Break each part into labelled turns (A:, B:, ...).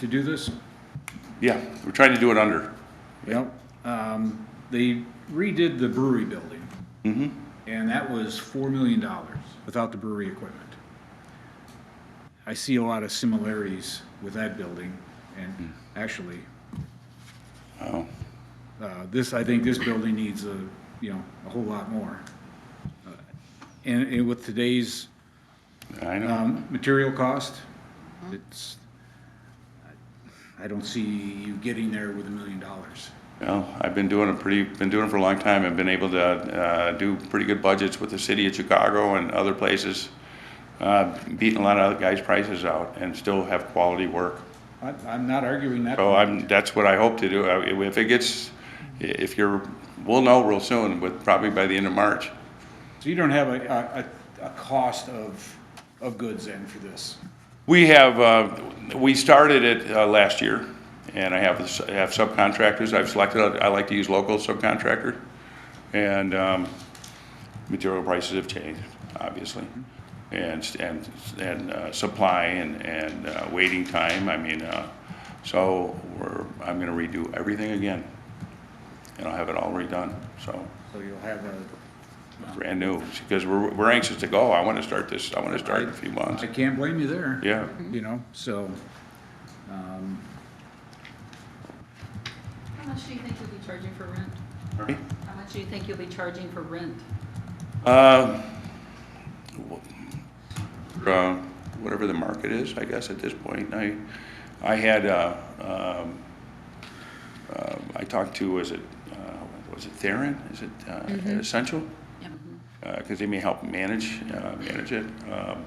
A: to do this?
B: Yeah, we're trying to do it under.
A: Yep. Um, they redid the brewery building. And that was four million dollars without the brewery equipment. I see a lot of similarities with that building and actually,
B: Oh,
A: uh, this, I think this building needs a, you know, a whole lot more. Uh, And, and with today's
B: I know.
A: Um, material cost, it's, I don't see you getting there with a million dollars.
B: Well, I've been doing a pretty, been doing it for a long time. I've been able to, uh, do pretty good budgets with the city of Chicago and other places. Uh, beating a lot of other guys' prices out and still have quality work.
A: I, I'm not arguing that.
B: So I'm, that's what I hope to do. I- If it gets, if you're, we'll know real soon, but probably by the end of March.
A: So you don't have a, a, a- a cost of, of goods then for this?
B: We have, uh, we started it uh, last year, and I have I have subcontractors. I've selected, I like to use local subcontractor, and um, material prices have changed, obviously, and, and, and uh, supply and, and uh, waiting time. I mean, uh, so we're, I'm gonna redo everything again, and I'll have it all redone, so,
A: So you'll have a,
B: brand new, because we're, we're anxious to go. I want to start this, I want to start in a few months.
A: I can't blame you there.
B: Yeah,
A: You know, so,
C: How much do you think you'll be charging for rent? How much do you think you'll be charging for rent?
B: Uh, wh- uh, Whatever the market is, I guess, at this point. I, I had, uh, um, uh, I talked to, was it, uh, was it Theron? Is it uh, Essential? Because they may help manage, uh, manage it. Um,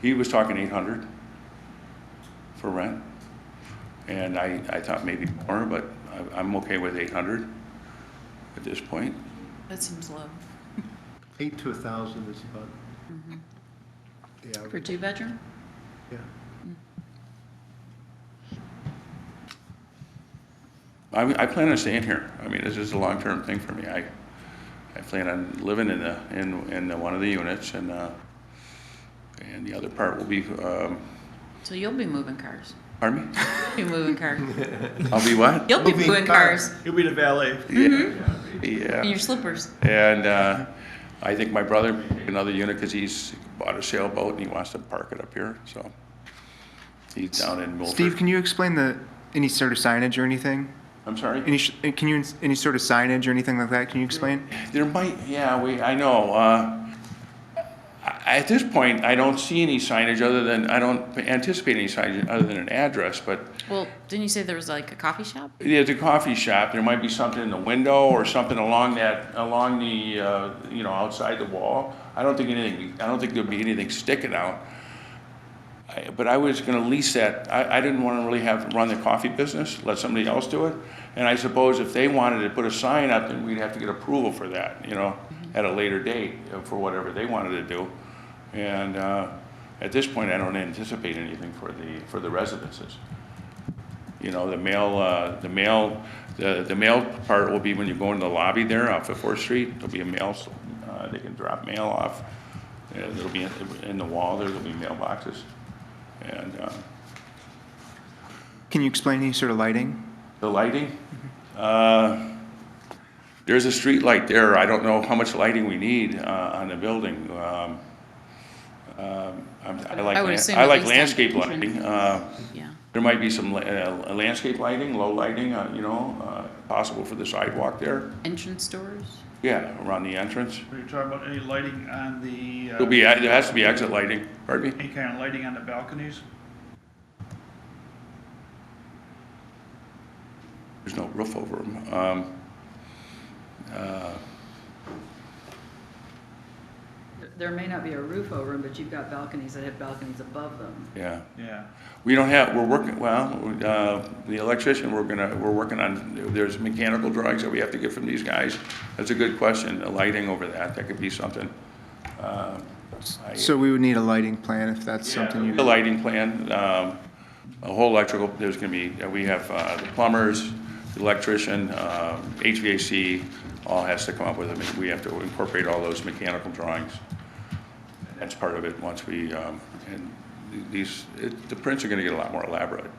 B: He was talking 800 for rent. And I, I thought maybe more, but I- I'm okay with 800 at this point.
D: That seems low.
E: Eight to a thousand is about the
C: For
E: average,
C: two bedroom?
E: yeah.
B: I, I plan on staying here. I mean, this is a long-term thing for me. I, I plan on living in the, in, in the, one of the units and, uh, and the other part will be, um,
D: So you'll be moving cars.
B: pardon me?
D: You'll be moving cars.
B: I'll be what?
D: You'll be moving cars
E: You'll be the valet.
D: in your
B: Yeah.
D: slippers.
B: And, uh, I think my brother, may take another unit, cause he's bought a sailboat and he wants to park it up here, so. He's down in Milford.
F: Steve, can you explain the, any sort of signage or anything?
B: I'm sorry?
F: Any, sh- eh, can you, any sort of signage or anything like that, can you explain?
B: There might, yeah, we, I know. uh, I- At this point, I don't see any signage other than, I don't anticipate any signage other than an address, but
D: Well, didn't you say there was like a coffee shop?
B: there's a coffee shop, there might be something in the window or something along that, along the, uh, you know, outside the wall. I don't think anything, I don't think there'll be anything sticking out. I- But I was gonna lease that, I, I didn't wanna really have, run the coffee business, let somebody else do it. And I suppose if they wanted to put a sign up, then we'd have to get approval for that, you know, at a later date uh, for whatever they wanted to do. And, uh, at this point, I don't anticipate anything for the, for the residences. You know, the mail, uh, the mail, the, the mail part will be when you go into the lobby there off of Fourth Street, there'll be a mail, s- uh, they can drop mail off. And there'll be, in in the wall there, there'll be mailboxes. And, uh,
F: Can you explain any sort of lighting?
B: the lighting,
D: Mm-hmm.
B: uh, there's a street light there. I don't know how much lighting we need, uh, on the building. Um, um, I'm- I like,
D: I would
B: lan-
D: assume
B: I
D: at
B: like
D: least ten
B: landscape
D: percent.
B: lighting, uh,
D: Yeah.
B: There might be some la- uh, landscape lighting, low lighting, uh, you know, uh, possible for the sidewalk there.
D: Entrance doors?
B: Yeah, around the entrance.
G: Are you talking about any lighting on the,
B: There'll
G: uh,
B: be, there has to be exit lighting, pardon me?
G: any kind of lighting on the balconies?
B: There's no roof over Um, them.
C: There may not be a roof over them, but you've got balconies that have balconies above them.
B: Yeah.
G: Yeah.
B: We don't have, we're working, well, uh, the electrician, we're gonna, we're working on, there's mechanical drawings that we have to get from these guys. That's a good question, the lighting over that, that could be something. Uh, I-
F: So we would need a lighting plan if that's something
B: The
F: you,
B: lighting plan, um, a whole electrical, there's gonna be, we have, uh, the plumbers, the electrician, um, HVAC, all has to come up with it. We have to incorporate all those mechanical drawings. That's part of it, once we, um, and these, it- the prints are gonna get a lot more elaborate